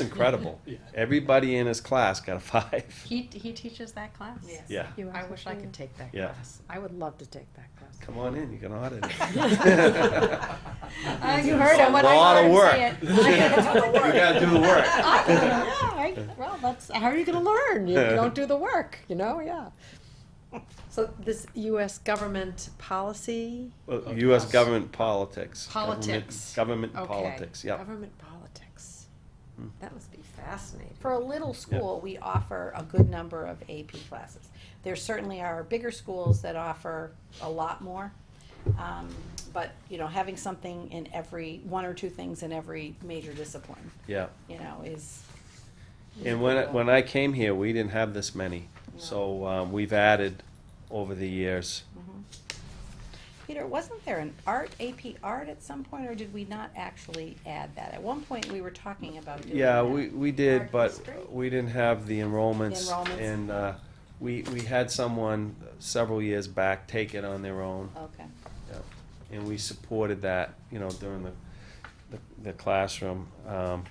It's incredible. Yeah. Everybody in his class got a five. He, he teaches that class? Yes. Yeah. You I asked wish if I you- could take that Yeah. class. I would love to take that class. Come on in, you can audit it. Uh, You heard him, when A lot I of heard him work. say it. You gotta do the work. I don't know, yeah, I- well, that's, how are you gonna learn? You don't do the work, you know, yeah. So this US government policy, Well, U.S. government politics. Government- Politics. Government okay. politics, yeah. Government politics. Hmm. That must be fascinating. For a little school, we offer a good number of AP classes. There certainly are bigger schools that offer a lot more. Um, but, you know, having something in every, one or two things in every major discipline, Yeah. you know, is. And when, I- when I came here, we didn't have this many. So, um, we've added over the years. Peter, wasn't there an art, AP art at some point, or did we not actually add that? At one point, we were talking about doing Yeah, that. we, we did, Art but history? we didn't have the enrollments. Enrollments. And, uh, we, we had someone several years back take it on their own. Okay, Yeah, And we supported that, you know, during the, the- the classroom. Um,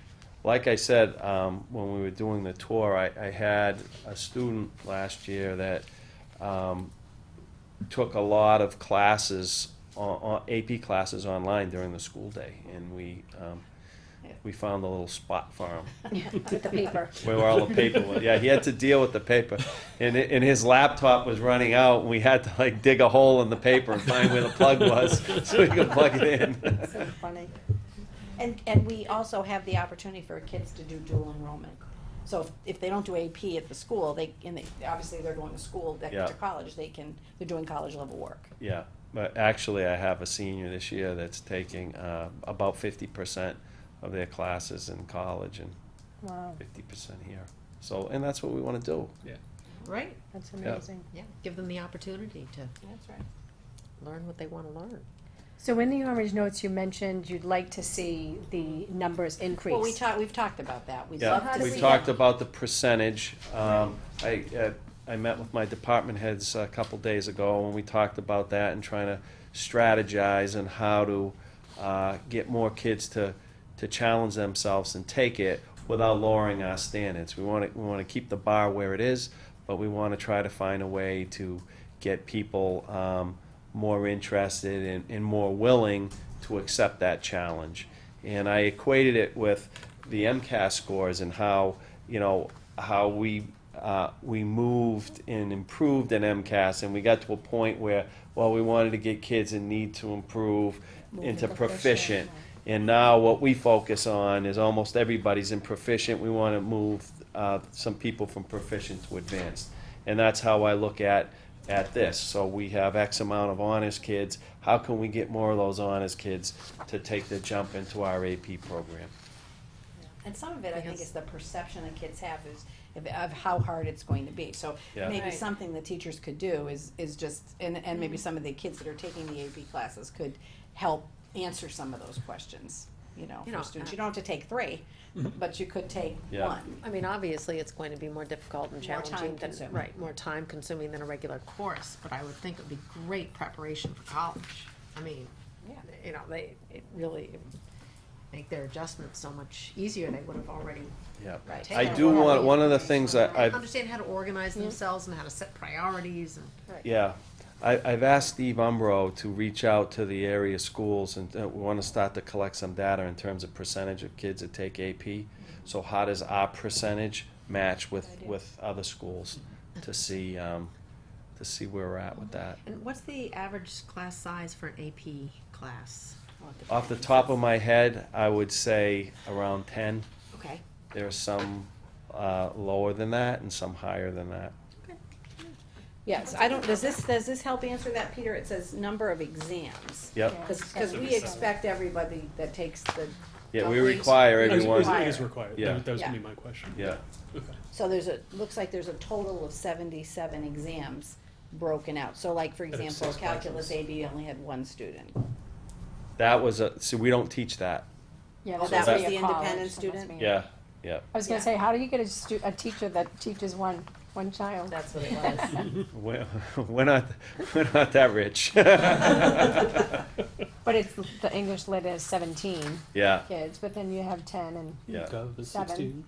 Like I said, um, when we were doing the tour, I, I had a student last year that um, took a lot of classes, on- on- AP classes online during the school day. And we, um, we found a little spot for him with the paper. where all the paper was. Yeah, he had to deal with the paper, and it, and his laptop was running out, and we had to like dig a hole in the paper and find where the plug was so he could plug it in. So funny. And, and we also have the opportunity for kids to do dual enrollment. So if, if they don't do AP at the school, they, and they, obviously they're going to school, they Yeah. to college, they can, they're doing college level work. Yeah, but actually, I have a senior this year that's taking uh, about fifty percent of their classes in college and Wow, fifty percent here. So, and that's what we want to do. Right, that's Yeah. amazing. yeah, give them the opportunity to That's right. learn what they wanna learn. So in the orange notes, you mentioned you'd like to see the numbers increase. Well, we talked, we've talked about that. We'd love Yeah, to do we see talked that. about the percentage. Um, I, uh, I met with my department heads a couple days ago, and we talked about that and trying to strategize and how to uh, get more kids to, to challenge themselves and take it without lowering our standards. We want to, we want to keep the bar where it is, but we want to try to find a way to get people um, more interested and, and more willing to accept that challenge. And I equated it with the MCAS scores and how, you know, how we, uh, we moved and improved in MCAS and we got to a point where, well, we wanted to get kids in need to improve into proficient. And now what we focus on is almost everybody's in proficient, we wanna move, uh, some people from proficient to advanced. And that's how I look at, at this. So we have X amount of honors kids. How can we get more of those honors kids to take the jump into our AP program? And some of it, I think, Yes. is the perception that kids have is of, of how hard it's going to be. So Yeah. maybe Right. Mm-hmm. something the teachers could do is, is just, and, and maybe some of the kids that are taking the AP classes could help answer some of those questions, you know, You for know, uh, students. You don't have to take three, but you could take Mm-hmm. Yeah. one. I mean, obviously, it's going to be more difficult and More time challenging than, consuming. right, more time consuming than a regular course, but I would think it'd be great preparation for college. I mean, Yeah. you know, they, it really would make their adjustments so much easier, they would have already Yeah. Right. I do want, one of the things that I've, Understand how to organize themselves and how to set priorities and. Yeah, I, I've asked Steve Umbro to reach out to the area schools and uh, we wanna start to collect some data in terms of percentage of kids that take AP. So how does our percentage match with, with other schools to see, um, to see where we're at with that? And what's the average class size for an AP class? Off the top of my head, I would say around ten. Okay. There are some, uh, lower than that and some higher than that. Yes, I don't, does this, does this help answer that, Peter? It says number of exams. Yep, Cause, 'cause we expect everybody that takes the. yeah, we double- require It is- everyone, It is required, Yeah. that was- that was gonna be Yeah. my question. yeah. So there's a, looks like there's a total of seventy-seven exams broken out. So like, for Out of example, six calculus modules. AB only had one student. That was a, so we don't teach that, Yeah, Oh, that's that was a the college, independent so it must student? be- yeah, yeah. I was gonna say, how do you get a stu- a teacher that teaches one, one child? That's what it was. We're, we're not, we're not that rich. But it's, the English lit is seventeen yeah, kids, but then you have ten and yeah. Gov is Seven. sixteen.